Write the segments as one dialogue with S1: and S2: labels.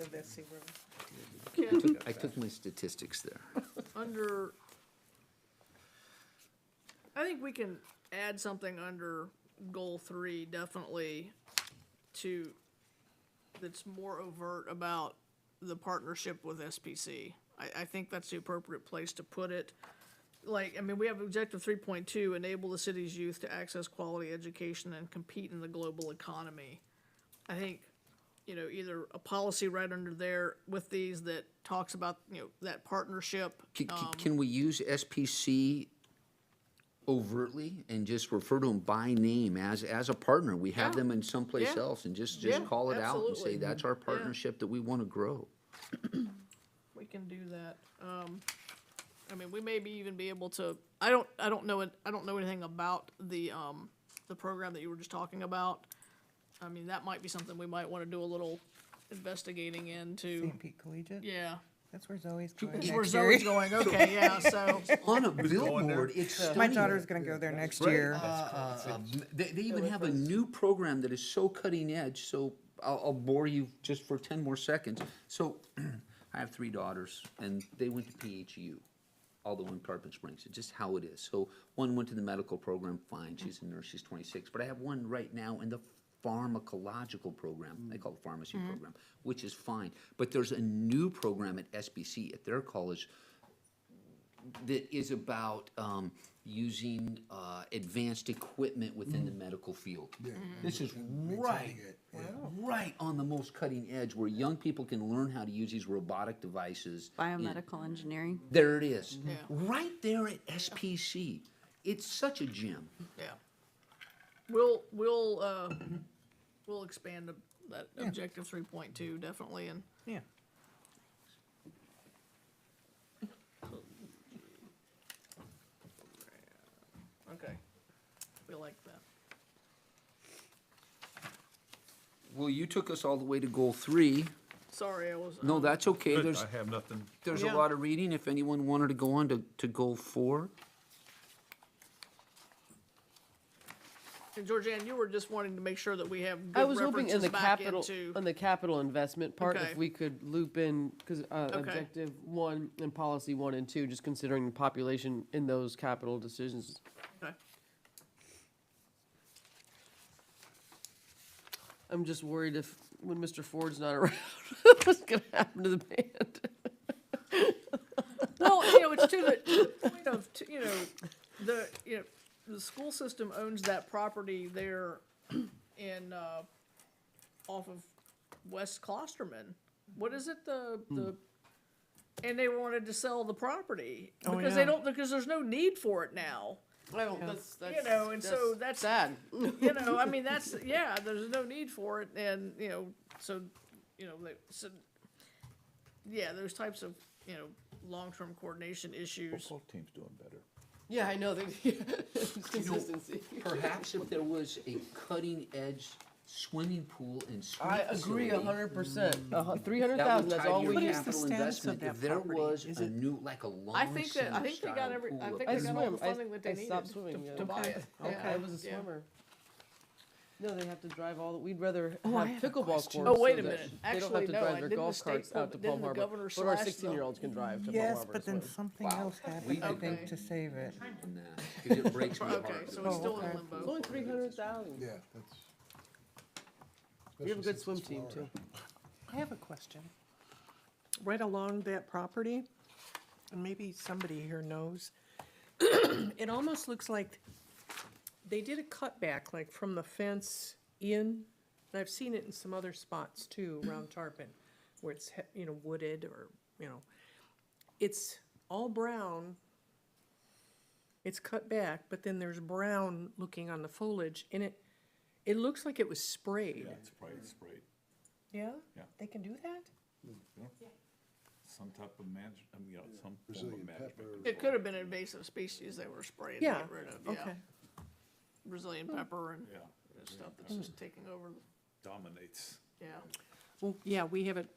S1: of that sea room.
S2: Ken,
S3: I took my statistics there.
S2: under, I think we can add something under goal three, definitely, to, that's more overt about the partnership with SPC. I, I think that's the appropriate place to put it. Like, I mean, we have objective three point two, enable the city's youth to access quality education and compete in the global economy. I think you know, either a policy right under there with these that talks about, you know, that partnership.
S3: Can, can- can we use SPC overtly and just refer to them by name as, as a partner? We have
S2: Yeah.
S3: them in someplace
S2: Yeah.
S3: else and just, just
S2: Yeah,
S3: call it out and
S2: absolutely.
S3: say, that's our partnership that we want to grow.
S2: We can do that. Um, I mean, we maybe even be able to, I don't, I don't know, it. I don't know anything about the, um, the program that you were just talking about. I mean, that might be something we might wanna do a little investigating into.
S1: St. Pete Collegiate,
S2: Yeah.
S1: that's where Zoe's going
S2: That's where
S1: next year.
S2: Zoe's going, okay, yeah, so,
S3: On a billboard, it's
S1: My
S3: stunning.
S1: daughter's gonna go there next year.
S3: Uh, They, they even have a new program that is so cutting edge, so I'll, I'll bore you just for ten more seconds. So, I have three daughters, and they went to E PHU, although in Carpet Springs, it's just how it is. So, one went to the medical program, fine, she's a nurse, she's twenty-six, but I have one right now in the pharmacological program, they call it pharmacy program, which is fine. But there's a new program at SBC at their college that is about um, using uh, advanced equipment within the medical field. This is right, right on the most cutting edge, where young people can learn how to use these robotic devices.
S4: Biomedical engineering.
S3: There it is, right there at SPC. It's such a gem.
S2: yeah. We'll, we'll, uh, we'll expand the- that objective three point two definitely and
S1: Yeah.
S2: Okay. We like that.
S3: Well, you took us all the way to goal three.
S2: Sorry, I was.
S3: No,
S2: um,
S3: that's okay.
S5: Good,
S3: There's
S5: I have nothing.
S3: there's
S2: Yeah.
S3: a lot of reading. If anyone wanted to go on to, to goal four,
S2: And uh, Georgianne, you were just wanting to make sure that we have
S6: I
S2: good
S6: was hoping in
S2: references
S6: the
S2: back
S6: capital,
S2: into.
S6: on the capital investment part,
S2: Okay.
S6: if we could loop in, because
S2: Okay.
S6: objective one and policy one and two, just considering the population in those capital decisions.
S2: Okay.
S6: I'm just worried if, when Mr. Ford's not around, what's gonna happen to the band?
S2: Well, you know, it's to the, to the point of, to- you know, the, you know, the school system owns that property there in, uh, off of West Klosterman. What is it, the,
S1: Hmm.
S2: the, and they wanted to sell the property.
S1: Oh,
S2: Because they
S1: yeah.
S2: don't, because there's no need for it now.
S6: Well, that's,
S2: You know, and so that's.
S6: Sad.
S2: you know, I mean, that's, yeah, there's no need for it, and, you know, so, you know, they- so, yeah, those types of, you know, long-term coordination issues.
S5: Both teams doing better.
S6: Yeah, I know, they, consistency.
S3: perhaps if there was a cutting edge swimming pool and swim
S6: I agree a
S3: facility,
S6: hundred percent, a hun, three hundred
S3: That
S6: thousand,
S3: would
S6: that's
S3: tie
S6: all
S3: to your
S6: we need.
S1: is the
S3: capital
S1: status of
S3: investment. If
S1: that
S3: there
S1: property?
S3: was
S1: Is
S3: a
S1: it-
S3: new, like a lawn.
S2: I think that, I think they got
S3: style
S2: every,
S3: pool
S2: I
S3: up
S2: think
S6: I
S2: they
S3: there.
S2: got all the
S6: swim. I-
S2: funding that they
S6: I
S2: needed
S6: stopped
S2: to-
S6: swimming, yeah.
S2: to buy it.
S6: Yeah, I was a
S2: Yeah.
S6: swimmer. No, they have to drive all, we'd rather
S1: Oh, I have
S6: have
S1: a
S6: pickleball courts.
S1: question.
S2: Oh, wait
S6: so
S2: a
S6: that
S2: minute.
S6: They don't
S2: Actually,
S6: have to
S2: no, I-
S6: drive their
S2: didn't
S6: golf
S2: the
S6: carts
S2: governor-
S6: out to
S2: didn't
S6: Palm
S2: the governor
S6: Harbor. But our
S2: slash the-
S6: sixteen-year-olds can drive to Palm Harbor.
S1: Yes, but
S6: to
S1: then
S6: swim.
S1: something else happened, I think, to save it.
S3: Nah, 'cause it breaks my heart.
S2: Okay, so
S3: that
S6: Oh,
S2: it's still in
S1: okay.
S6: It's
S2: limbo.
S6: only three hundred thousand.
S7: Yeah, that's.
S6: We have a good
S7: especially since
S6: swim
S7: it's
S6: team,
S7: Florida.
S6: too.
S1: I have a question. Right along that property, and maybe somebody here knows, it almost looks like they did a cutback, like from the fence in, and I've seen it in some other spots too, around Tarpon, where it's, he- you know, wooded or, you know, it's all brown. It's cut back, but then there's brown looking on the foliage, and it, it looks like it was sprayed.
S5: It's probably sprayed,
S1: Yeah?
S5: Yeah.
S1: They can do that?
S5: some type of manage, I mean, you know, some form of
S7: Brazilian
S5: management.
S7: pepper.
S2: It could have been invasive species they were spraying to
S1: Yeah,
S2: get rid of, yeah.
S1: okay. Hmm.
S2: Brazilian pepper and
S5: Yeah,
S2: stuff that's just taking over,
S5: dominates.
S2: yeah.
S8: Well, yeah, we have it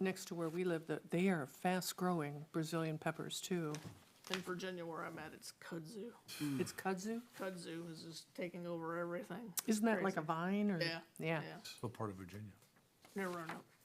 S8: next to where we live, that they are fast-growing Brazilian peppers, too.
S2: In Virginia where I'm at, it's kudzu.
S8: It's kudzu?
S2: Kudzu is just taking over everything.
S8: Isn't that like a
S2: Crazy.
S8: vine, or?
S2: Yeah.
S8: Yeah.
S5: What part of Virginia?
S2: Near Roanoke.